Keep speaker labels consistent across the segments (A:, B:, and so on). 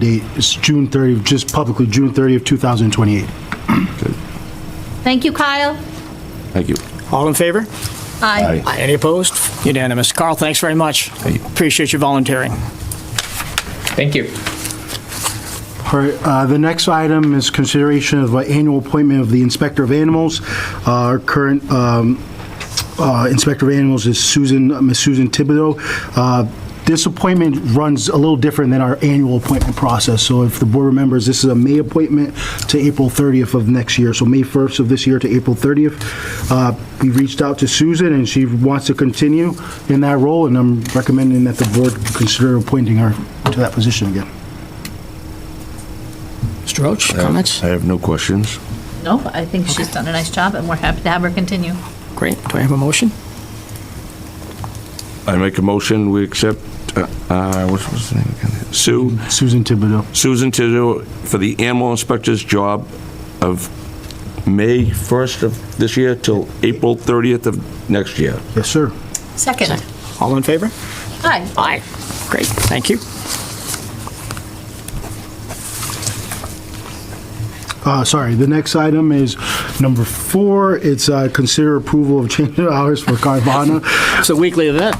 A: date is June 30th, just publicly, June 30th, 2028.
B: Thank you, Kyle.
C: Thank you.
D: All in favor?
B: Aye.
D: Any opposed? Unanimous. Carl, thanks very much. Appreciate your volunteering.
E: Thank you.
A: All right, uh, the next item is consideration of uh, annual appointment of the Inspector of Animals. Uh, Our current um, uh, Inspector of Animals is Susan, Ms. Susan Thibodeau. Uh, This appointment runs a little different than our annual appointment process. So if the board remembers, this is a May appointment to April 30th of next year, so May 1st of this year to April 30th. Uh, We reached out to Susan, and she wants to continue in that role, and I'm recommending that the board consider appointing her to that position again.
D: Mr. Roach, comments?
C: Um, I have no questions.
B: No, I think she's done a nice job, and we're happy to have her continue.
D: Great. Do I have a motion?
C: I make a motion, we accept, uh, uh, what was the name again? Sue,
A: Susan Thibodeau.
C: Susan Tizzle for the animal inspector's job of May 1st of this year till April 30th of next year.
A: Yes, sir.
B: Second.
D: All in favor?
B: Aye.
D: Aye. Great, thank you.
A: Uh, sorry, the next item is number four. It's uh, consider approval of change of hours for Carvana.
D: It's a weekly event.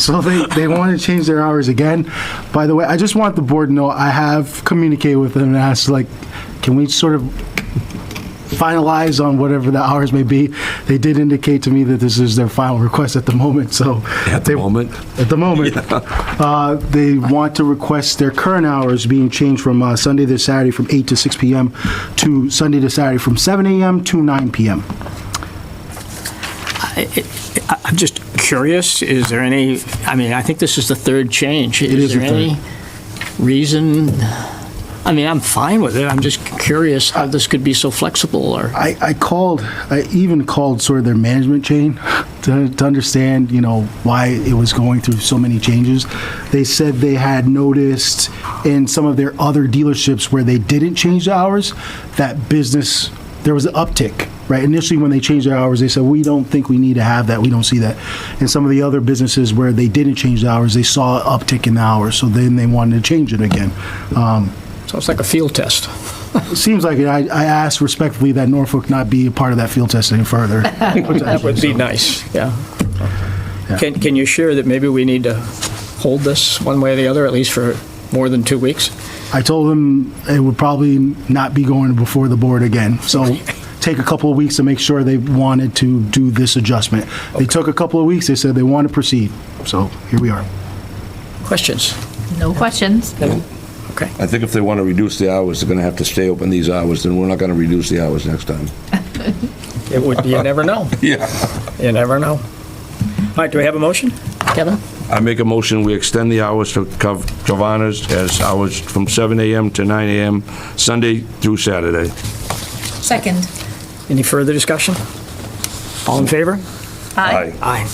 A: so they, they want to change their hours again. By the way, I just want the board to know I have communicated with them and asked, like, can we sort of finalize on whatever the hours may be? They did indicate to me that this is their final request at the moment, so.
C: At the
A: they-
C: moment?
A: At the moment. Uh, They want to request their current hours being changed from uh, Sunday to Saturday from 8 to 6 PM to Sunday to Saturday from 7 AM to 9 PM.
D: I- I- I'm just curious, is there any, I mean, I think this is the third change.
A: is the third.
D: there any reason, I mean, I'm fine with it, I'm just curious how this could be so flexible, or,
A: I, I called, I even called sort of their management chain to, to understand, you know, why it was going through so many changes. They said they had noticed in some of their other dealerships where they didn't change the hours, that business, there was an uptick, right? Initially, when they changed their hours, they said, we don't think we need to have that, we don't see that. And some of the other businesses where they didn't change the hours, they saw an uptick in the hours, so then they wanted to change it again. Um,
D: so it's like a field test.
A: it seems like it. I, I asked respectfully that Norfolk not be a part of that field test any further.
D: That would be nice, yeah. Can, can you share that maybe we need to hold this one way or the other, at least for more than two weeks?
A: I told them it would probably not be going before the board again. So take a couple of weeks to make sure they wanted to do this adjustment. They took a couple of weeks. They said they want to proceed. So here we are.
D: Questions?
B: No questions.
D: Okay.
C: I think if they want to reduce the hours, they're going to have to stay open these hours, then we're not going to reduce the hours next time.
D: It would, you never know.
C: Yeah.
D: You never know. All right, do we have a motion? Kevin?
C: I make a motion, we extend the hours to Cav- Giovanna's as hours from 7 AM to 9 AM, Sunday through Saturday.
B: Second.
D: Any further discussion? All in favor?
B: Aye.
D: Aye.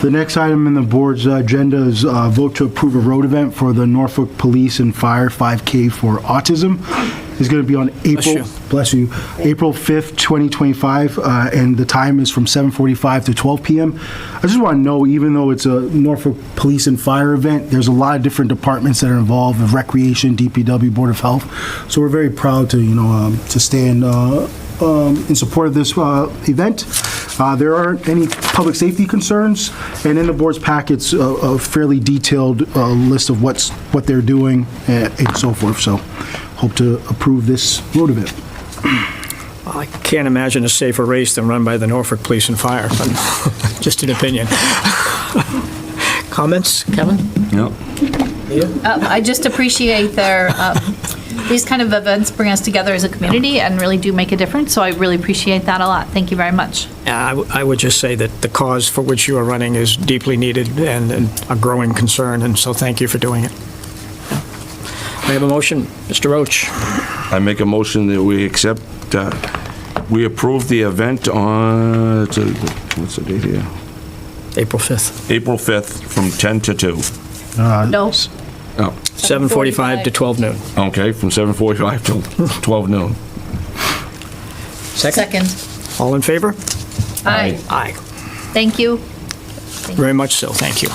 A: The next item in the board's agenda is uh, vote to approve a road event for the Norfolk Police and Fire 5K for Autism. It's going to be on April,
D: you.
A: bless you, April 5th, 2025, uh, and the time is from 7:45 to 12 p.m. I just want to know, even though it's a Norfolk Police and Fire event, there's a lot of different departments that are involved, the Recreation, DPW, Board of Health, so we're very proud to, you know, um, to stand uh, um, in support of this uh, event. Uh, There aren't any public safety concerns, and in the board's packets, a- a fairly detailed uh, list of what's, what they're doing and and so forth, so hope to approve this road event.
D: I can't imagine a safer race than run by the Norfolk Police and Fire, but just an opinion. Comments, Kevin?
C: No.
B: Uh, I just appreciate their, um, these kind of events bring us together as a community and really do make a difference, so I really appreciate that a lot. Thank you very much.
D: Yeah, I w- I would just say that the cause for which you are running is deeply needed and and a growing concern, and so thank you for doing it. We have a motion, Mr. Roach.
C: I make a motion that we accept, uh, we approve the event on, it's a- what's the date here?
D: April 5th.
C: April 5th from 10 to 2.
A: Uh,
B: No.
C: Oh,
D: 7:45 to 12 noon.
C: okay, from 7:45 till 12 noon.
B: Second.
D: All in favor?
B: Aye.
D: Aye.
B: Thank you.
D: Very much so, thank you.